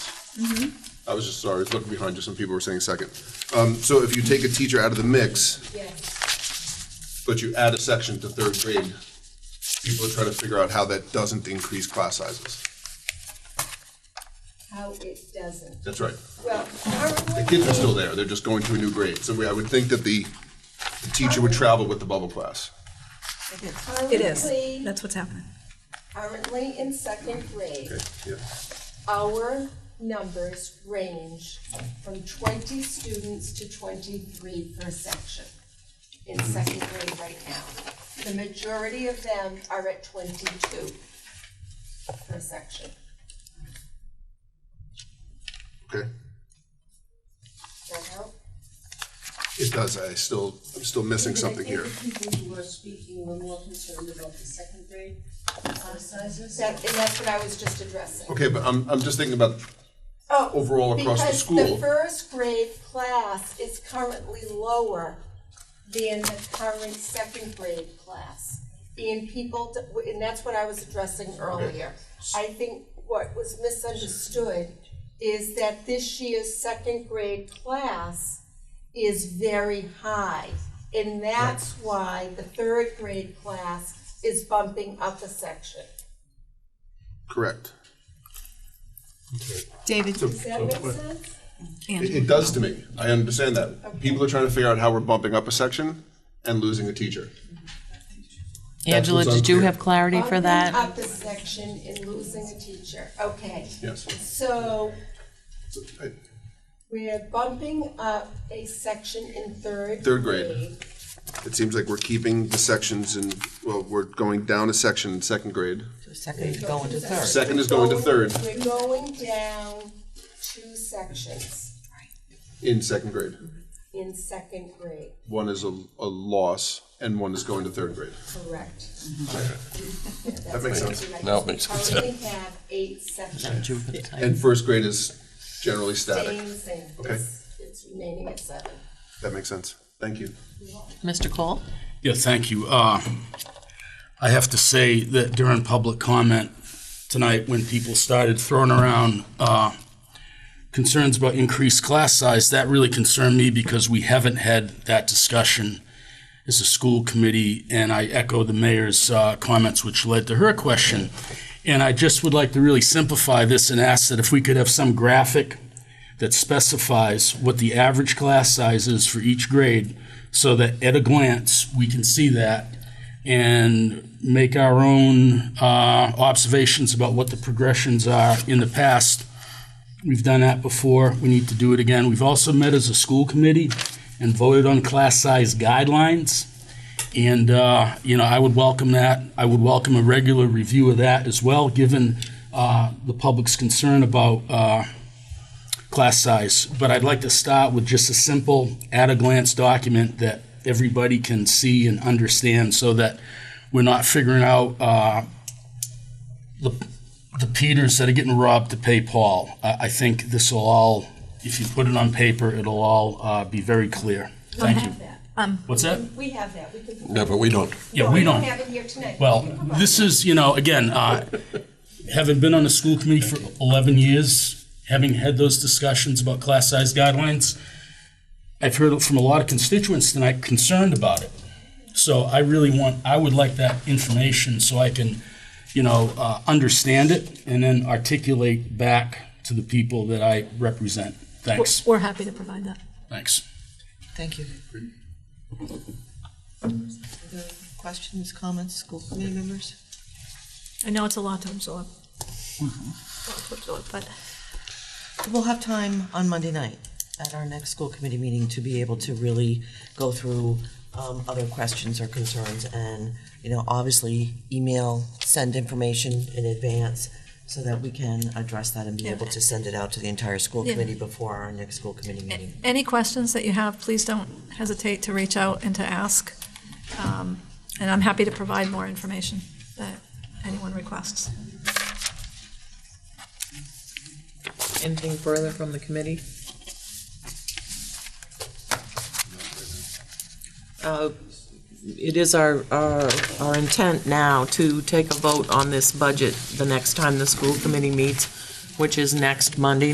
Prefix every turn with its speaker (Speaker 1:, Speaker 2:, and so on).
Speaker 1: I was just sorry, I was looking behind you, some people were saying second. Um, so if you take a teacher out of the mix,
Speaker 2: Yes,
Speaker 1: but you add a section to third grade, people are trying to figure out how that doesn't increase class sizes.
Speaker 2: how it doesn't.
Speaker 1: That's right.
Speaker 2: Well,
Speaker 1: The
Speaker 2: currently,
Speaker 1: kids are still there, they're just going to a new grade, so we- I would think that the, the teacher would travel with the bubble class.
Speaker 3: It is.
Speaker 2: Currently-
Speaker 3: That's what's happening.
Speaker 2: currently in second grade,
Speaker 1: Okay, yeah.
Speaker 2: our numbers range from twenty students to twenty-three per section in
Speaker 1: Mm-hmm.
Speaker 2: second grade right now. The majority of them are at twenty-two per section.
Speaker 1: Okay,
Speaker 2: Does that help?
Speaker 1: it does, I still, I'm still missing something here.
Speaker 4: I think the people who were speaking were more concerned about the second grade class sizes.
Speaker 2: That, and that's what I was just addressing.
Speaker 1: Okay, but I'm, I'm just thinking about
Speaker 2: Oh,
Speaker 1: overall across the
Speaker 2: Because
Speaker 1: school.
Speaker 2: the first grade class is currently lower than the current second grade class. And people, d- and that's what I was addressing earlier. I think what was misunderstood is that this year's second grade class is very high. And that's why the third grade class is bumping up a section.
Speaker 1: Correct.
Speaker 3: David,
Speaker 2: Does that make sense?
Speaker 1: It, it does to me. I understand that. People are trying to figure out how we're bumping up a section and losing a teacher. That's
Speaker 5: Angela,
Speaker 1: what's
Speaker 5: did you
Speaker 1: unclear.
Speaker 5: have clarity for
Speaker 2: Bumping
Speaker 5: that?
Speaker 2: Up a section and losing a teacher, okay.
Speaker 1: Yes.
Speaker 2: So
Speaker 1: So, I-
Speaker 2: we're bumping up a section in third.
Speaker 1: Third grade. It seems like we're keeping the sections and, well, we're going down a section in second grade.
Speaker 6: Second, going to third.
Speaker 1: Second is going to third
Speaker 2: We're going down two sections
Speaker 1: in second grade.
Speaker 2: in second grade,
Speaker 1: One is a, a loss and one is going to third grade.
Speaker 2: correct?
Speaker 1: Mm-hmm. That makes sense.
Speaker 2: Now it makes sense. We currently have eight sections,
Speaker 1: And first grade is generally
Speaker 2: staying
Speaker 1: static.
Speaker 2: the same,
Speaker 1: Okay.
Speaker 2: it's, it's remaining at seven.
Speaker 1: That makes sense. Thank you.
Speaker 5: Mr. Cole?
Speaker 7: Yeah, thank you. Uh, I have to say that during public comment tonight, when people started throwing around uh, concerns about increased class size, that really concerned me because we haven't had that discussion as a school committee, and I echo the mayor's uh, comments, which led to her question. And I just would like to really simplify this and ask that if we could have some graphic that specifies what the average class size is for each grade so that at a glance we can see that and make our own uh, observations about what the progressions are in the past. We've done that before. We need to do it again. We've also met as a school committee and voted on class size guidelines. And, uh, you know, I would welcome that. I would welcome a regular review of that as well, given uh, the public's concern about uh, class size, but I'd like to start with just a simple at-a-glance document that everybody can see and understand so that we're not figuring out uh, the the Peters that are getting robbed to pay Paul. I I think this will all, if you put it on paper, it'll all uh, be very clear. Thank you. What's that?
Speaker 2: We have that, we can.
Speaker 8: No, but we don't.
Speaker 7: Yeah, we
Speaker 2: don't
Speaker 7: don't.
Speaker 2: have it here tonight.
Speaker 7: Well,
Speaker 2: We can provide
Speaker 7: this
Speaker 2: it.
Speaker 7: is, you know, again, uh, having been on the school committee for 11 years, having had those discussions about class size guidelines, I've heard from a lot of constituents tonight concerned about it. So I really want, I would like that information so I can, you know, uh, understand it and then articulate back to the people that I represent.
Speaker 3: we're-
Speaker 7: Thanks,
Speaker 3: we're happy to provide that.
Speaker 7: thanks.
Speaker 6: Thank you. Other Questions, comments, school committee members?
Speaker 3: I know it's a lot to absorb. Lot to absorb, But
Speaker 6: We'll have time on Monday night at our next school committee meeting to be able to really go through um, other questions or concerns and, you know, obviously email, send information in advance so that we can address that and be able to send it out to the entire school
Speaker 3: Yeah.
Speaker 6: committee before our next school committee meeting.
Speaker 3: any questions that you have, please don't hesitate to reach out and to ask. Um, And I'm happy to provide more information that anyone requests.
Speaker 9: Anything further from the committee? Uh, It is our, our, our intent now to take a vote on this budget the next time the school committee meets, which is next Monday